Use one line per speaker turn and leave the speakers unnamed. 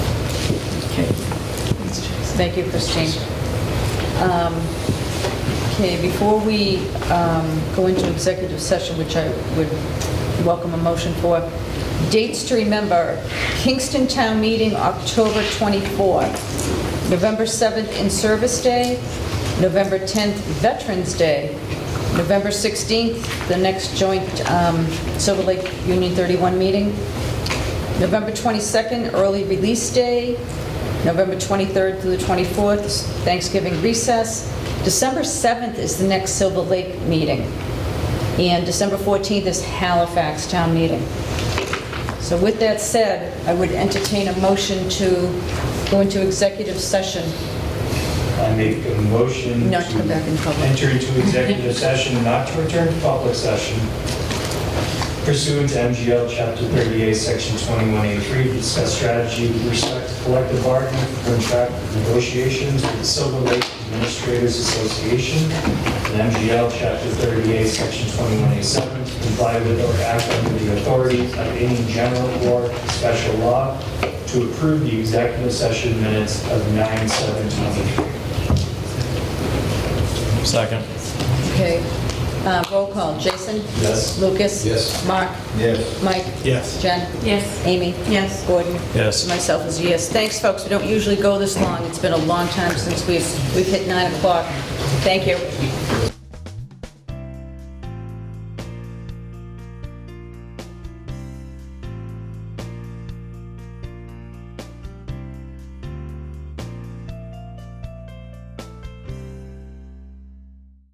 Thank you, Christine. Um, Okay, before we um, go into executive session, which I would welcome a motion for, dates to remember, Kingston Town Meeting, October 24th, November 7th, In-Service Day, November 10th, Veterans Day, November 16th, the next joint um, Silver Lake Union 31 meeting, November 22nd, early release day, November 23rd through the 24th, is Thanksgiving recess. December 7th is the next Silver Lake meeting, and December 14th is Halifax Town Meeting. So with that said, I would entertain a motion to go into executive session.
I make a motion
Not to come back in public.
Enter into executive session, not to return to public session pursuant to MGL Chapter 38, Section 21A3, to discuss strategy with respect to collective bargaining for contract negotiations with the Silver Lake Administrators Association and MGL Chapter 38, Section 21A7, to comply with or act under the authority of any general or special law to approve the executive session minutes of 9/7/23.
Second.
Okay, Uh, roll call, Jason?
Yes.
Lucas?
Yes.
Mark?
Yes.
Mike?
Yes.
Jen?
Yes.
Amy? Yes. Gordon?
Yes.
Myself is a yes. Thanks, folks, we don't usually go this long, it's been a long time since we've, we've hit 9 o'clock. Thank you.